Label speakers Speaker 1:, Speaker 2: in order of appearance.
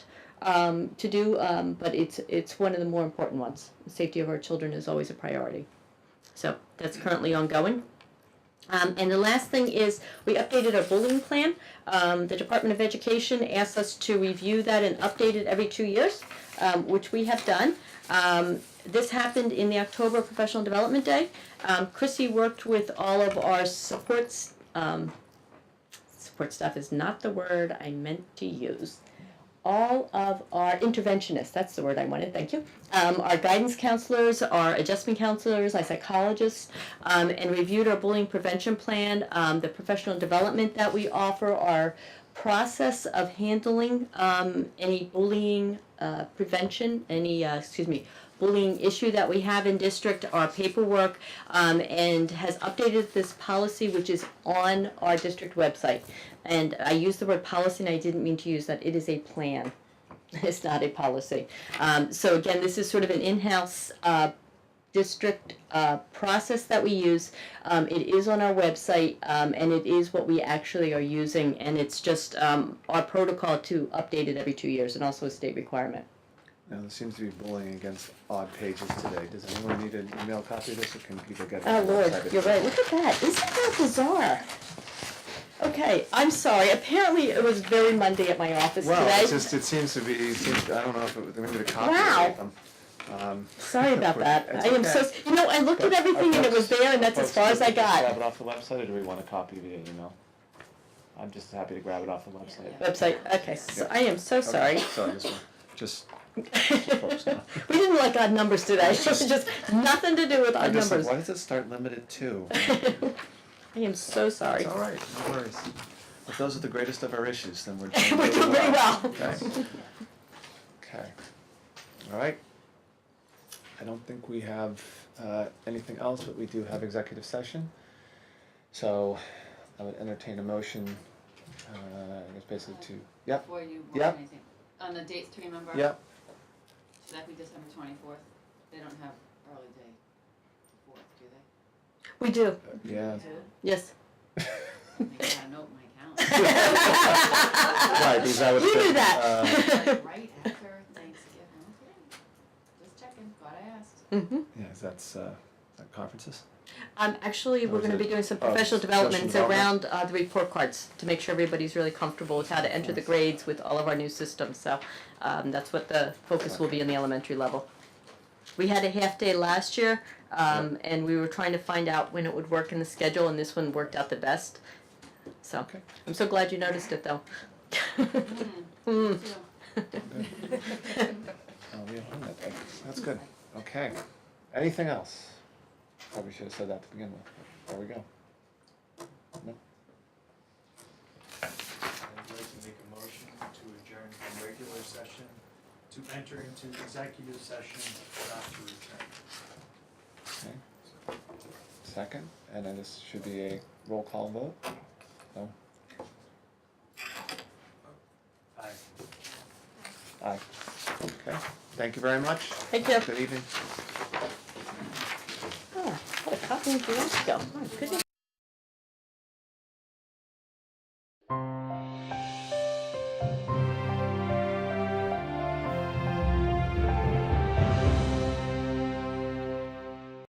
Speaker 1: um, to do, um, but it's, it's one of the more important ones. The Safety of our children is always a priority. So that's currently ongoing. Um, and the last thing is, we updated our bullying plan. Um, the Department of Education asked us to review that and update it every two years, um, which we have done. Um, this happened in the October Professional Development Day. Um, Chrissy worked with all of our supports, um, support staff is not the word I meant to use. All of our interventionists, that's the word I wanted, thank you. Um, our guidance counselors, our adjustment counselors, our psychologists, um, and reviewed our bullying prevention plan, um, the professional development that we offer, our process of handling um, any bullying uh, prevention, any, uh, excuse me, bullying issue that we have in district, our paperwork, um, and has updated this policy, which is on our district website. And I used the word policy, and I didn't mean to use that. It is a plan. It's not a policy. Um, so again, this is sort of an in-house uh, district uh, process that we use. Um, it is on our website, um, and it is what we actually are using, and it's just um, our protocol to update it every two years, and also a state requirement.
Speaker 2: Now, there seems to be bullying against odd pages today. Does anyone need an email copy of this, or can people get it?
Speaker 1: Oh
Speaker 2: on the
Speaker 1: Lord,
Speaker 2: website if
Speaker 1: you're
Speaker 2: they-
Speaker 1: right. Look at that. Isn't that bizarre? Okay, I'm sorry. Apparently, it was very Monday at my office
Speaker 2: Well,
Speaker 1: today.
Speaker 2: it's just, it seems to be, it seems, I don't know if it, maybe the copy.
Speaker 1: Wow.
Speaker 2: Um,
Speaker 1: Sorry about that.
Speaker 2: It's
Speaker 1: I am so.
Speaker 2: okay.
Speaker 1: You know, I looked at everything and it was there, and that's as far as I
Speaker 3: Grab
Speaker 1: got.
Speaker 3: it off the website, or do we want a copy via email? I'm just happy to grab it off the website.
Speaker 1: Website. Okay, so I am so sorry.
Speaker 2: okay, Sorry, just, one- just, folks know.
Speaker 1: we didn't like odd numbers today. Just, just nothing to do with
Speaker 2: I'm
Speaker 1: odd
Speaker 2: just like,
Speaker 1: numbers.
Speaker 2: why does it start limited to?
Speaker 1: I am so sorry.
Speaker 2: It's all right, no worries. If those are the greatest of our issues, then we're doing
Speaker 1: We're doing very well.
Speaker 2: Okay. Okay, all right. I don't think we have uh, anything else, but we do have executive session. So I would entertain a motion, uh, I guess basically to, yep,
Speaker 4: Before you
Speaker 2: Yeah.
Speaker 4: want anything, on the dates to remember?
Speaker 2: yep,
Speaker 4: Should that be December twenty-fourth? They don't have early day fourth, do they?
Speaker 1: We do.
Speaker 2: yeah.
Speaker 1: Yes.
Speaker 4: I gotta note in my
Speaker 1: you
Speaker 4: calendar.
Speaker 2: Right, because I would
Speaker 1: knew
Speaker 2: think,
Speaker 1: that.
Speaker 4: Like right after Thanksgiving, okay. Just checking, glad I asked.
Speaker 1: hmm
Speaker 2: Yeah, is that's, uh, is that conferences?
Speaker 1: Um, actually,
Speaker 2: Or
Speaker 1: we're
Speaker 2: is
Speaker 1: gonna
Speaker 2: it-
Speaker 1: be doing some
Speaker 2: oh,
Speaker 1: professional
Speaker 2: professional
Speaker 1: developments around,
Speaker 2: development.
Speaker 1: uh, the report cards to make sure everybody's really comfortable with how to enter the grades with all of our new systems, so, um, that's what the focus will be in the elementary level. We had a half day last year, um, and we were trying to find out when it would work in the schedule, and this one worked out the best. So,
Speaker 2: Okay.
Speaker 1: I'm so glad you noticed it though.
Speaker 4: Hmm,
Speaker 1: Mm.
Speaker 4: too.
Speaker 1: Hmm.
Speaker 2: Oh, we don't have that. That's good. Okay. Anything else? Probably should have said that to begin with. but There we go. No?
Speaker 5: I'd like to make a motion to adjourn from regular session to enter into executive session, not to return.
Speaker 2: Okay. Second, and then this should be a roll call vote. No?
Speaker 5: Aye.
Speaker 2: Aye. Okay. Thank you very much.
Speaker 1: Thank you.
Speaker 2: Good evening.
Speaker 1: Oh, what a copy of the go. My goodness.